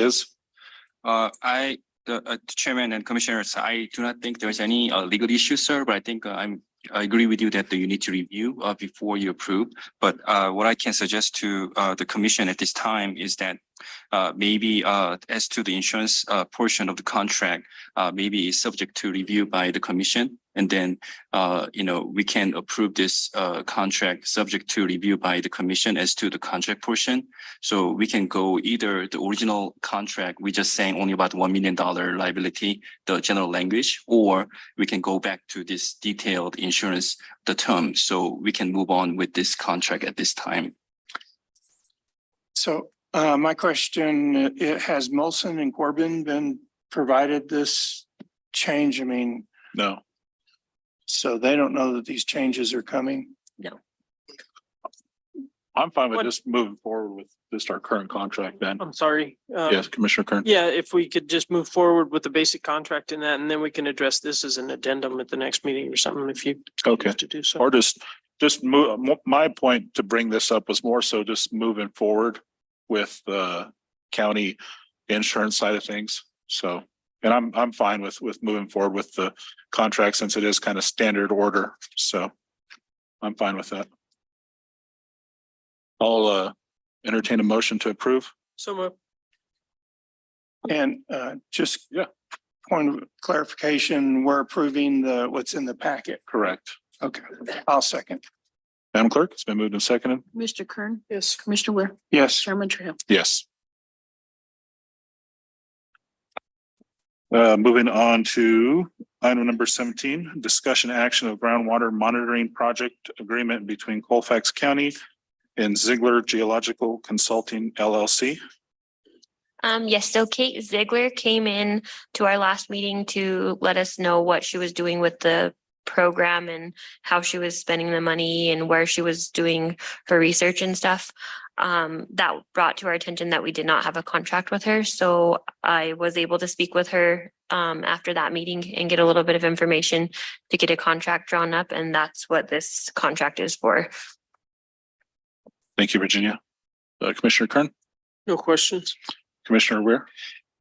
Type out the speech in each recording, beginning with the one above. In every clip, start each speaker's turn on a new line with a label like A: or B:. A: is. Uh, I, the uh, Chairman and Commissioners, I do not think there's any uh, legal issue, sir, but I think uh, I'm, I agree with you that you need to review uh, before you approve. But uh, what I can suggest to uh, the Commission at this time is that uh, maybe uh, as to the insurance uh, portion of the contract, uh, maybe is subject to review by the Commission. And then, uh, you know, we can approve this uh, contract subject to review by the Commission as to the contract portion. So we can go either the original contract, we just saying only about one million dollar liability, the general language, or we can go back to this detailed insurance, the term. So we can move on with this contract at this time.
B: So uh, my question, uh, it- has Molson and Corbin been provided this change? I mean,
C: No,
B: so they don't know that these changes are coming.
C: I'm fine with
D: What-
C: just moving forward with just our current contract then.
D: I'm sorry. uh,
C: Yes, Commissioner Kern.
D: Yeah, if we could just move forward with the basic contract and that, and then we can address this as an addendum at the next meeting or something if you.
C: Okay.
D: choose To do so.
C: Or just, just move, my point to bring this up was more so just moving forward with the county insurance side of things. So, and I'm, I'm fine with, with moving forward with the contract since it is kind of standard order. So I'm fine with that. I'll uh, entertain a motion to approve.
D: So moved.
B: And uh, just
C: Yeah.
B: point of clarification, we're approving the, what's in the packet.
C: Correct.
B: Okay, I'll second.
C: Madam Clerk, it's been moved and seconded.
E: Mr. Kern,
D: Yes.
E: Commissioner Ware,
B: Yes,
E: Chairman Truhill.
C: Yes. Uh, moving on to item number seventeen, discussion action of groundwater monitoring project agreement between Colfax County and Ziegler Geological Consulting LLC.
F: Um, yes, so Kate Ziegler came in to our last meeting to let us know what she was doing with the program and how she was spending the money and where she was doing her research and stuff. Um, that brought to our attention that we did not have a contract with her, so I was able to speak with her um, after that meeting and get a little bit of information to get a contract drawn up, and that's what this contract is for.
C: Thank you, Virginia. Uh, Commissioner Kern,
D: No questions?
C: Commissioner Weir.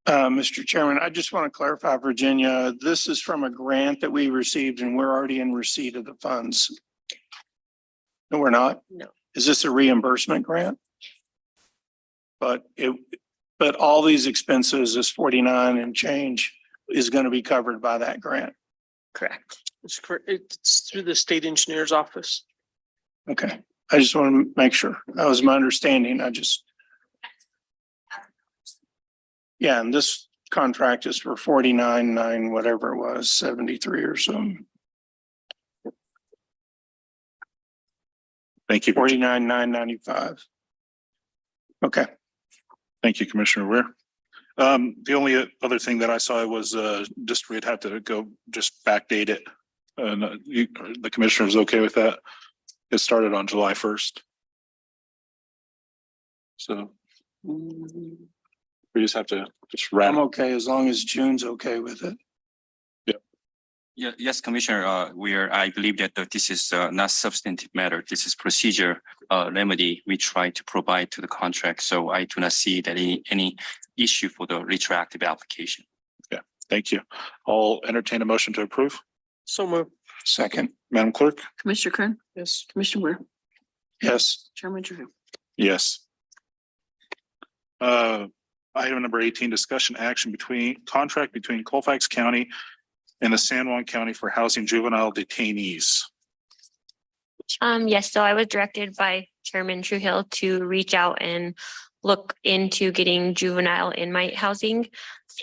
B: uh, Mr. Chairman, I just want to clarify, Virginia, this is from a grant that we received and we're already in receipt of the funds. No, we're not?
F: No.
B: Is this a reimbursement grant? But it, but all these expenses, this forty-nine and change is going to be covered by that grant.
F: Correct.
D: It's correct. It's through the state engineer's office.
B: Okay, I just want to make sure. That was my understanding. I just. Yeah, and this contract is for forty-nine, nine, whatever it was, seventy-three or some,
C: Thank you.
B: forty-nine, nine ninety-five. Okay,
C: Thank you, Commissioner Ware. Um, the only other thing that I saw was, uh, just we'd have to go just backdate it. And uh, you, the commissioner is okay with that. It started on July first. So. We just have to just
B: I'm
C: rattle.
B: okay as long as June's okay with it.
A: Yeah, yes, Commissioner, uh, we are, I believe that uh, this is, uh, not substantive matter. This is procedure, uh, remedy we try to provide to the contract. So I do not see that any, any issue for the retroactive application.
C: Thank you. I'll entertain a motion to approve.
D: So moved.
B: Second,
C: Madam Clerk?
E: Commissioner Kern,
D: Yes.
E: Commissioner Ware,
B: yes.
E: Chairman Truhill.
C: Yes. Uh, item number eighteen, discussion action between, contract between Colfax County and the San Juan County for housing juvenile detainees.
F: Um, yes, so I was directed by Chairman Truhill to reach out and look into getting juvenile inmate housing.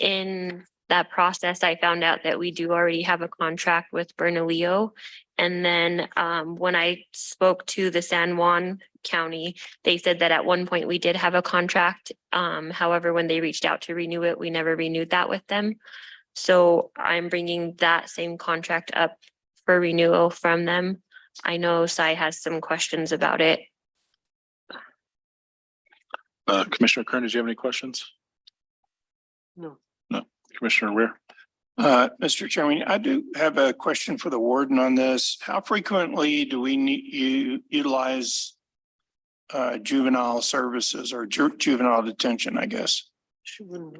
F: In that process, I found out that we do already have a contract with Bernalillo. And then um, when I spoke to the San Juan County, they said that at one point we did have a contract. Um, however, when they reached out to renew it, we never renewed that with them. So I'm bringing that same contract up for renewal from them. I know Sai has some questions about it.
C: Uh, Commissioner Kern, did you have any questions?
D: No.
C: No. Commissioner Weir?
B: Uh, Mr. Chairman, I do have a question for the warden on this. How frequently do we need you utilize uh, juvenile services or ju- juvenile detention, I guess?
D: She wouldn't